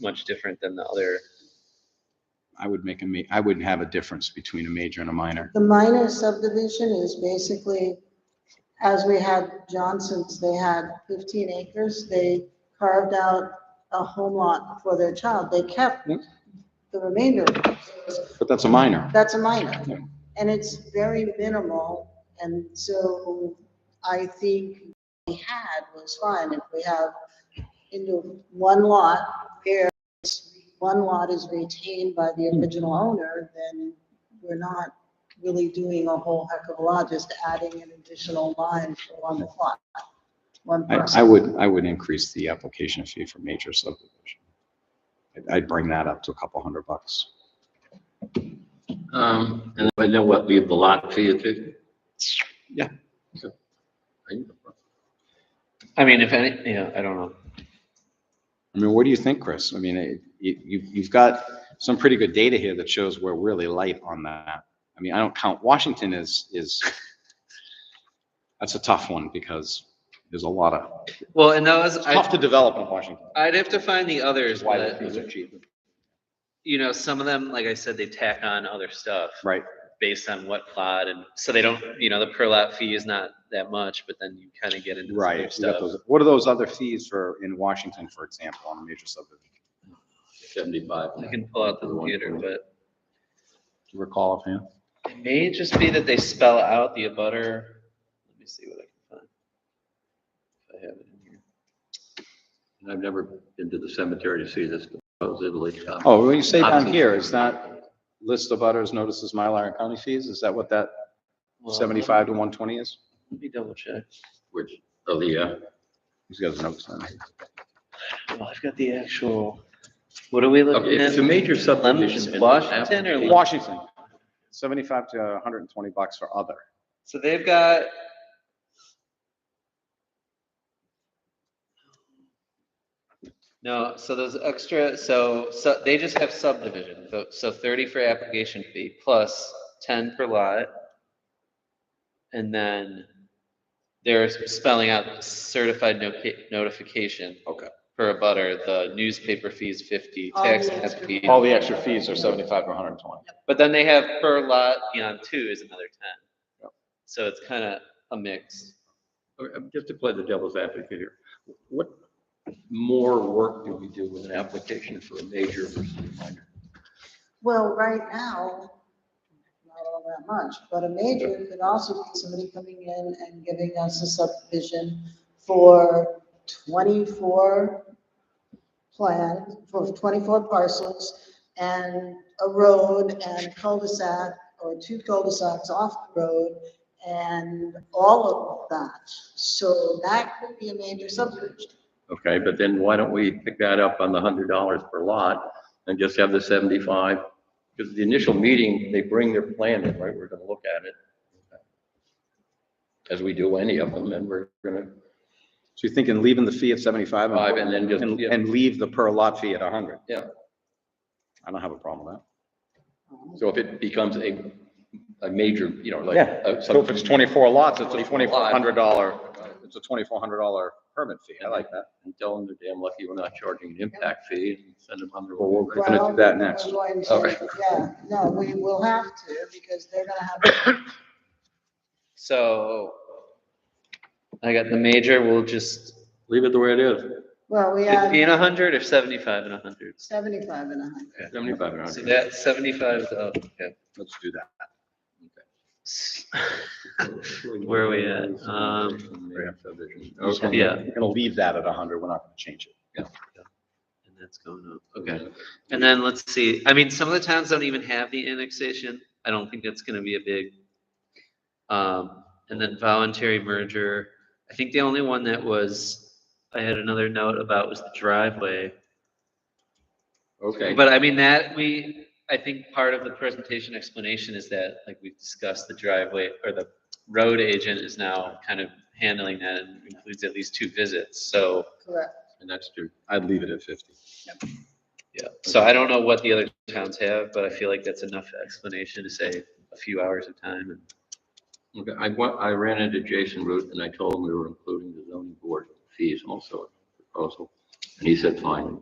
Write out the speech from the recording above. much different than the other. I would make a ma, I would have a difference between a major and a minor. The minor subdivision is basically, as we had Johnson's, they had fifteen acres, they carved out a home lot for their child, they kept Yep. the remainder. But that's a minor. That's a minor, Yeah. and it's very minimal, and so I think we had was fine, if we have into one lot, where it's- one lot is retained by the Hmm. original owner, then we're not really doing a whole heck of a lot, just adding an additional line for one plot, one I, person. I would, I would increase the application fee for major subdivision. I'd- I'd bring that up to a couple hundred bucks. Um, and I know what, leave the lot fee at fifty? Yeah. So, I- I mean, if any, you know, I don't know. I mean, what do you think, Chris? I mean, it- you, you- you've got some pretty good data here that shows we're really light on that. I mean, I don't count, Washington is, is, that's a tough one because there's a lot of, Well, and that was, it's tough to I'd, develop in Washington. I'd have to find the others, Why the but, fees are cheap. you know, some of them, like I said, they tack on other stuff. Right. Based on what plot and, so they don't, you know, the per lot fee is not that much, but then you kind of get into some other Right. you got stuff. those- What are those other fees for, in Washington, for example, on a major subdivision? Seventy-five. I can pull out the computer, but. Do you recall offhand? It may just be that they spell out the abutter. Let me see what I can find. If I have it in here. And I've never been to the cemetery to see this supposedly. um, Oh, when you say down Options. here, is that list of butters, notices, Mylar and county fees? Is that what that Well, seventy-five to one twenty is? Let me double check. Which, oh, the, uh, He's got his notes on it. Well, I've got the actual, what are we okay, looking if it's a at? major Lemons, subdivision. and Washington or application- Washington, seventy-five to hundred and twenty bucks for other. So they've got. No, so those extra, so, so they just have subdivision, so, so thirty for application fee plus ten per lot. And then they're spelling out certified noca- notification. Okay. Per a butter, the newspaper fees fifty, All the tax extra fee. All the extra fees are seventy-five to hundred and twenty. But then they have per lot beyond two is another ten. So it's kind of a mix. Or, um, Just to play the devil's advocate here, what more work do we do with an application for a major versus a minor? Well, right now, not all that much, but a major could also be somebody coming in and giving us a subdivision for twenty-four plan, for twenty-four parcels and a road and cul-de-sac or two cul-de-sacs off the road and all of that. So that could be a major subdivision. Okay, but then why don't we pick that up on the hundred dollars per lot and just have the seventy-five? Because the initial meeting, they bring their plan in, right? We're gonna look at it. As we do any of them, and we're gonna, So you're thinking leaving the fee at seventy-five Five and, and then just- and, yeah. and leave the per lot fee at a hundred? Yeah. I don't have a problem with that. so if it becomes a, a major, you know, like. Yeah, uh, So if it's twenty-four lots, it's a 24 twenty-four hundred dollar, Right. it's a twenty-four hundred dollar permit fee. I like that. And tell them they're damn lucky we're not charging an impact fee and send them on their Well, way. we're gonna do Well, that next. we're going to- All right. Yeah, no, we will have to because they're gonna have So I got the major, we'll just, Leave it the way it is, Well, we fifty had and a hundred or seventy-five and a hundred? seventy-five and a hundred. seventy-five So hundred. that seventy-five is up, yeah. Let's do that. Where are we at? Um, Okay. Yeah. We're gonna leave that at a hundred. We're not gonna change it. And that's going up, okay. And then let's see, I mean, some of the towns don't even have the annexation. I don't think that's gonna be a big. Um, and then voluntary merger. I think the only one that was, I had another note about was the driveway. Okay. But I mean, that, we, I think part of the presentation explanation is that, like we've discussed, the driveway or the road agent is now kind of handling that and includes at least two visits, so. Correct. And that's true. I'd leave it at fifty. Yeah, so I don't know what the other towns have, but I feel like that's enough explanation to say a few hours of time and. Okay, I went, I ran into Jason Root and I told him we were including the zoning board fees also in the proposal. And he said, fine,